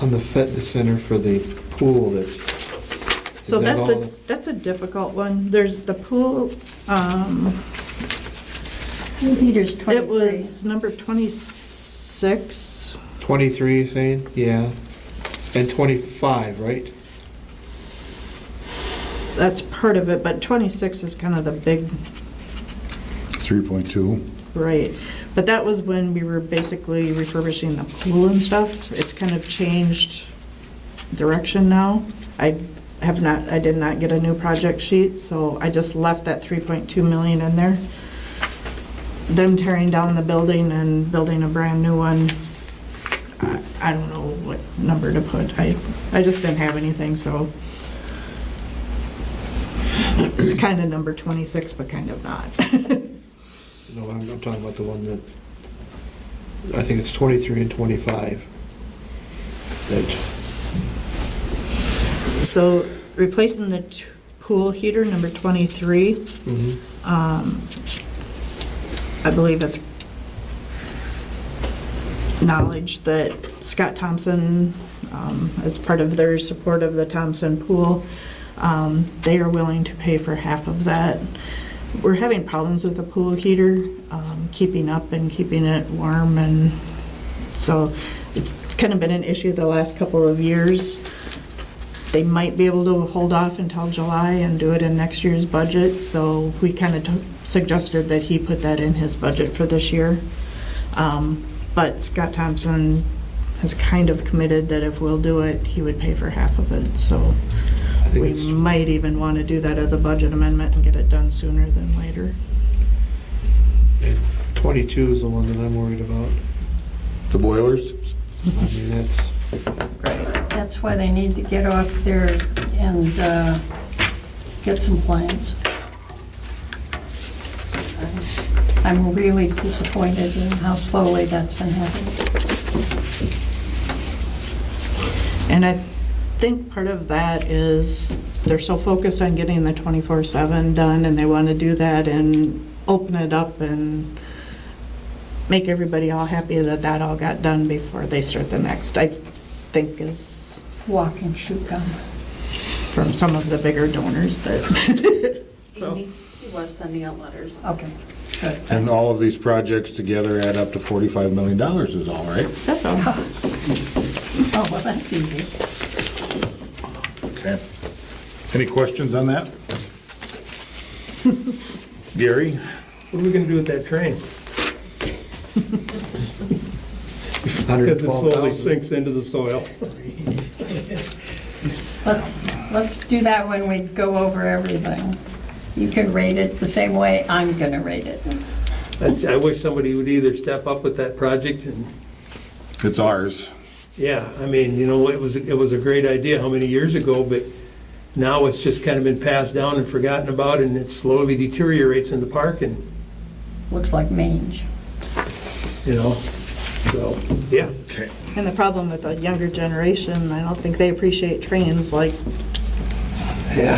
On the fitness center for the pool that, is So that that's a, all? that's a difficult one. There's the pool, um, Peter's 23. it was number 26. 23, you're saying? Yeah. And 25, right? That's part of it, but 26 is kind of the big, 3.2. right. But that was when we were basically refurbishing the pool and stuff. It's kind of changed direction now. I have not, I did not get a new project sheet, so I just left that 3.2 million in there. Them tearing down the building and building a brand new one, I- I don't know what number to put. I, I just didn't have anything, so. It's kind of number 26, but kind of not. No, I'm, I'm talking about the one that, I think it's 23 and 25. That, So replacing the t- pool heater, number 23, mhm. um, I believe it's knowledge that Scott Thompson, um, as part of their support of the Thompson Pool, um, they are willing to pay for half of that. We're having problems with the pool heater, um, keeping up and keeping it warm, and so it's kind of been an issue the last couple of years. They might be able to hold off until July and do it in next year's budget, so we kind of suggested that he put that in his budget for this year. Um, But Scott Thompson has kind of committed that if we'll do it, he would pay for half of it, so I think we it's, might even want to do that as a budget amendment and get it done sooner than later. 22 is the one that I'm worried about. The boilers? I mean, that's, That's why they need to get off there and uh, get some plans. I'm really disappointed in how slowly that's been happening. And I think part of that is they're so focused on getting the 24/7 done, and they want to do that and open it up and make everybody all happy that that all got done before they start the next, I think is Walk and shoot gun. from some of the bigger donors that, So- Amy, he was sending out letters. Okay, good. And all of these projects together add up to $45 million is all, right? that's all. Oh, well, that's easy. Okay. Any questions on that? Gary? What are we gonna do with that train? Because it slowly 112,000. sinks into the soil. Let's, let's do that when we go over everything. You can rate it the same way I'm gonna rate it. I I wish somebody would either step up with that project and, It's ours. yeah, I mean, you know, it was, it was a great idea how many years ago, but now it's just kind of been passed down and forgotten about, and it slowly deteriorates in the park, and, Looks like mange. you know, so, yeah. Okay. And the problem with the younger generation, I don't think they appreciate trains like,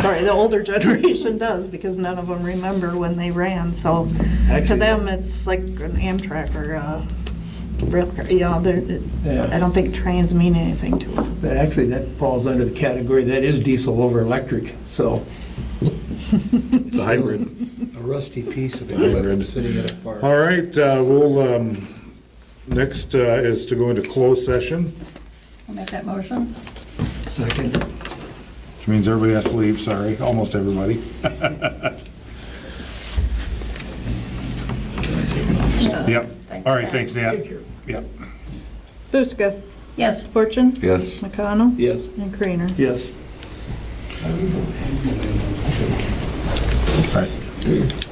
sorry, the older generation does, because none of them remember when they ran, so to Actually- them, it's like an Amtrak or a rail car, you know, they're, Yeah. I don't think trains mean anything to them. But Actually, that falls under the category, that is diesel over electric, so. It's a hybrid. A rusty piece of Hybrid. equipment sitting at a farm. All right, uh, we'll, um, next uh, is to go into closed session, I'll make that motion. which means everybody has to leave, sorry, almost everybody. Yep. All right, thanks, Dan. Yep. Buska, Yes. Fortune, Yes. McConnell, Yes. and Creener. Yes. All right.